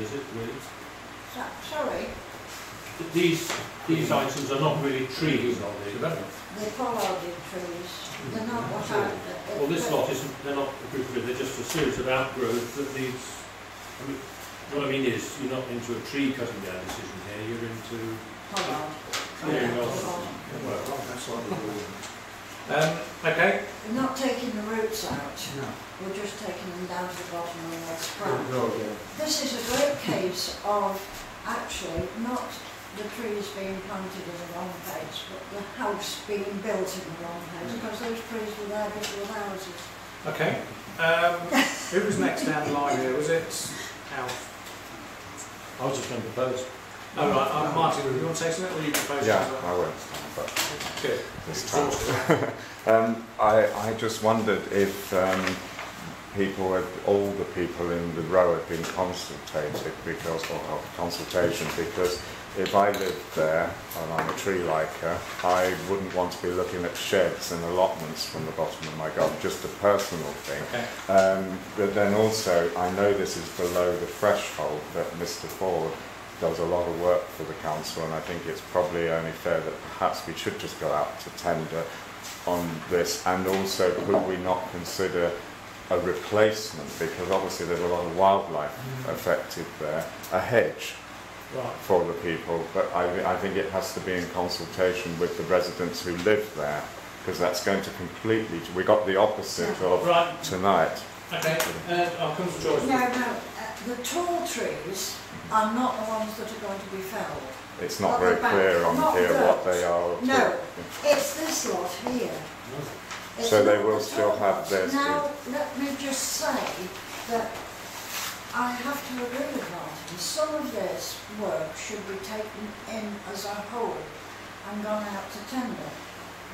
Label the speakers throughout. Speaker 1: is it really?
Speaker 2: So, sorry,
Speaker 1: These, these items are not really trees, are they?
Speaker 2: they follow the trees, they're not what I...
Speaker 1: Mm-hmm. Well, this lot isn't, they're not a group of, it, they're just a series of outgrowths that needs, I mean, what I mean is, you're not into a tree cutting down decision here, you're into,
Speaker 2: Follow.
Speaker 1: Clearing off.
Speaker 2: Follow.
Speaker 1: well,
Speaker 3: Um, okay.
Speaker 2: We're not taking the roots out,
Speaker 3: No.
Speaker 2: we're just taking them down to the bottom and they're scrap. This is a great case of actually not the trees being planted in the wrong place, but the house being built in the wrong
Speaker 1: Mm.
Speaker 2: place, because those trees were there before the houses.
Speaker 3: Okay. Um, who was next down the line here? Was it Alf?
Speaker 1: I was just going to propose.
Speaker 3: Oh, right. Uh, Martin, do you want to say something or you propose
Speaker 4: Yeah,
Speaker 3: something?
Speaker 4: I won't stand, but
Speaker 3: Good.
Speaker 4: this time. Um, I, I just wondered if um, people, had, all the people in the row had been consulted because of consultation, because if I lived there and I'm a tree liker, I wouldn't want to be looking at sheds and allotments from the bottom of my garden, just a personal thing.
Speaker 3: Okay.
Speaker 4: Um, but then also, I know this is below the threshold that Mr. Ford does a lot of work for the council, and I think it's probably only fair that perhaps we should just go out to tender on this. And also, could we not consider a replacement? Because obviously, there's a lot of wildlife
Speaker 2: Mm.
Speaker 4: affected there, a hedge
Speaker 3: Right.
Speaker 4: for the people, but I, I think it has to be in consultation with the residents who live there, because that's going to completely, we got the opposite of
Speaker 3: Right.
Speaker 4: tonight.
Speaker 3: Okay. Uh, I'll come to George.
Speaker 2: No, no, uh, the tall trees are not the ones that are going to be felled.
Speaker 4: It's not
Speaker 2: Not
Speaker 4: very
Speaker 2: the back,
Speaker 4: clear on
Speaker 2: not
Speaker 4: here
Speaker 2: the-
Speaker 4: what they are. or
Speaker 2: No,
Speaker 4: what-
Speaker 2: it's this lot here. It's
Speaker 4: So they
Speaker 2: not
Speaker 4: will
Speaker 2: the
Speaker 4: still
Speaker 2: tall
Speaker 4: have
Speaker 2: ones.
Speaker 4: theirs
Speaker 2: Now, let me just say that I have to agree with Martin, some of this work should be taken in as a whole and gone out to tender.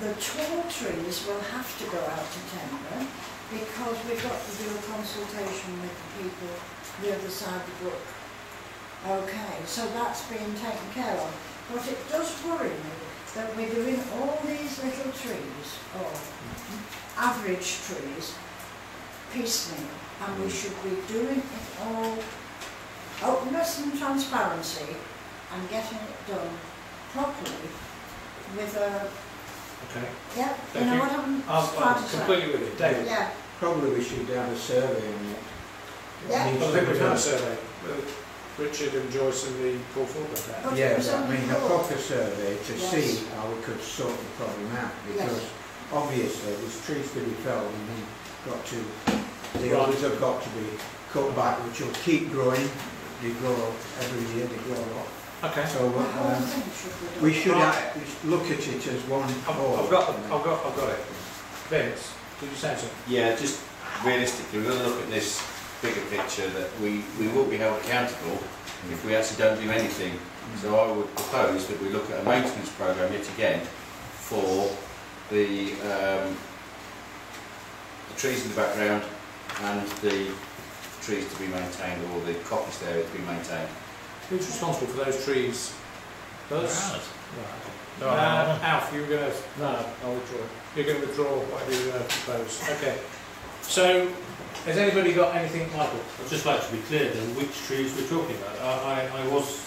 Speaker 2: The tall trees will have to go out to tender because we've got to do a consultation with the people the other side of the brook. Okay, so that's being taken care of. But it does worry me that we're doing all these little trees, or average trees, piecemeal, and we should be doing it all openness and transparency and getting it done properly with a,
Speaker 3: Okay.
Speaker 2: yeah, you
Speaker 3: Thank
Speaker 2: know
Speaker 3: you.
Speaker 2: what I'm
Speaker 3: I'm,
Speaker 2: trying
Speaker 3: I'm
Speaker 2: to say?
Speaker 3: completely with you. David.
Speaker 2: Yeah,
Speaker 5: Probably we should have a survey on it.
Speaker 2: Yeah.
Speaker 3: I think we've had a survey. with Richard and Joyce and the Paul Ford were there.
Speaker 2: But it
Speaker 5: Yeah,
Speaker 2: was
Speaker 5: but I
Speaker 2: only
Speaker 5: mean, a
Speaker 2: four.
Speaker 5: proper survey to
Speaker 2: Yes.
Speaker 5: see how we could sort the problem out, because obviously there's trees to be felled and they've got to, the
Speaker 3: Right.
Speaker 5: others have got to be cut back, which will keep growing, they grow every year, they grow up.
Speaker 3: Okay.
Speaker 5: So,
Speaker 2: the whole
Speaker 5: um,
Speaker 2: thing should be
Speaker 5: we
Speaker 2: done.
Speaker 5: should
Speaker 3: Right.
Speaker 5: act- we should look at it as one
Speaker 3: I've,
Speaker 4: Oh.
Speaker 3: I've
Speaker 5: whole.
Speaker 3: got. I've got. I've got it. Vince, did you say something?
Speaker 6: Yeah, just realistically, we're going to look at this bigger picture that we, we will be held accountable if we actually don't do anything. So I would propose that we look at a maintenance programme yet again for the, um, the trees in the background and the trees to be maintained or the coppice area to be maintained.
Speaker 3: Who's responsible for those trees? Us.
Speaker 1: Right.
Speaker 3: Right.
Speaker 1: No,
Speaker 3: Uh,
Speaker 1: no,
Speaker 3: Alf, you were going to.
Speaker 1: no, I'll withdraw.
Speaker 3: You're going to withdraw whatever you uh, propose. Okay. So, has anybody got anything, Michael?
Speaker 1: I'd just like to be clear then, which trees we're talking about. I, I, I was,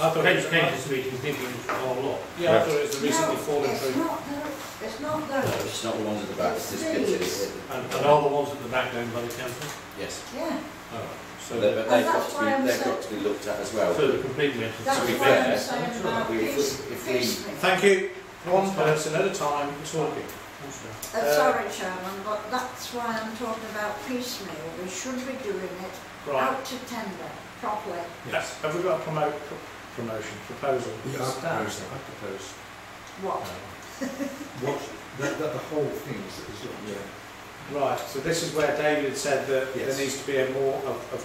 Speaker 3: I thought it
Speaker 1: came
Speaker 3: was,
Speaker 1: came to speaking, thinking it was our lot.
Speaker 3: yeah, I thought it was the recently
Speaker 2: No,
Speaker 3: fallen
Speaker 2: it's
Speaker 3: tree.
Speaker 2: not tho- It's not those,
Speaker 6: It's not the ones at the back, it's just bits of it.
Speaker 1: And, and are the ones at the back owned by the council?
Speaker 6: Yes,
Speaker 2: yeah,
Speaker 1: Oh,
Speaker 6: so
Speaker 1: so,
Speaker 6: they- but
Speaker 2: And
Speaker 6: they've
Speaker 2: that's
Speaker 6: got
Speaker 2: why
Speaker 6: to
Speaker 2: I'm
Speaker 6: be, they've
Speaker 2: saying-
Speaker 6: got to be looked at as well.
Speaker 1: so the complete mental.
Speaker 2: that's
Speaker 6: be
Speaker 2: why I'm
Speaker 6: fair,
Speaker 2: saying about
Speaker 6: we- if we-
Speaker 2: piece,
Speaker 6: if we- Uh,
Speaker 2: piecemeal.
Speaker 3: Thank you. One person at a time talking.
Speaker 2: Uh,
Speaker 3: Uh,
Speaker 2: sorry, Chairman, but that's why I'm talking about piecemeal. We should be doing it
Speaker 3: Right.
Speaker 2: out to tender properly.
Speaker 3: Yes. Have we got a promote, pro- promotion, proposal?
Speaker 5: Yeah,
Speaker 3: Stan?
Speaker 5: proposal.
Speaker 3: I propose.
Speaker 2: What?
Speaker 5: What, that, that the whole thing is, is, yeah.
Speaker 3: Right. So this is where David said that there
Speaker 5: Yes.
Speaker 3: needs to be a more of, of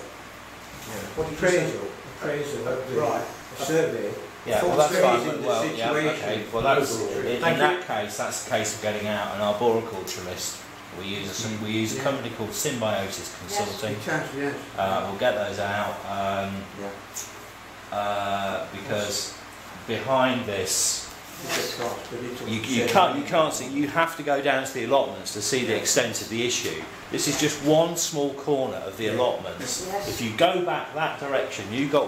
Speaker 3: What did you say?
Speaker 5: Appraisal, appraisal of
Speaker 3: right.
Speaker 5: the a survey.
Speaker 7: Yeah, well,
Speaker 5: Full
Speaker 7: that's
Speaker 5: trees
Speaker 7: fine.
Speaker 5: in the
Speaker 7: Well, yeah, okay.
Speaker 5: situation.
Speaker 7: Well, that's,
Speaker 5: Overall.
Speaker 7: in
Speaker 3: Thank
Speaker 7: in that case, that's a case of getting out. An arboriculturalist, we use a, s- we use a
Speaker 5: Yeah.
Speaker 7: company called Symbiosis Consulting.
Speaker 5: In terms of the answer.
Speaker 7: Uh, we'll get those out um,
Speaker 5: Yeah.
Speaker 7: uh, because behind this
Speaker 5: it's a cost, but it's.
Speaker 1: You, you can't, you can't see, you have to go down to the allotments to see the extent of the issue. This is just one small corner of the allotments.
Speaker 2: Yes.
Speaker 1: If you go back that direction, you've got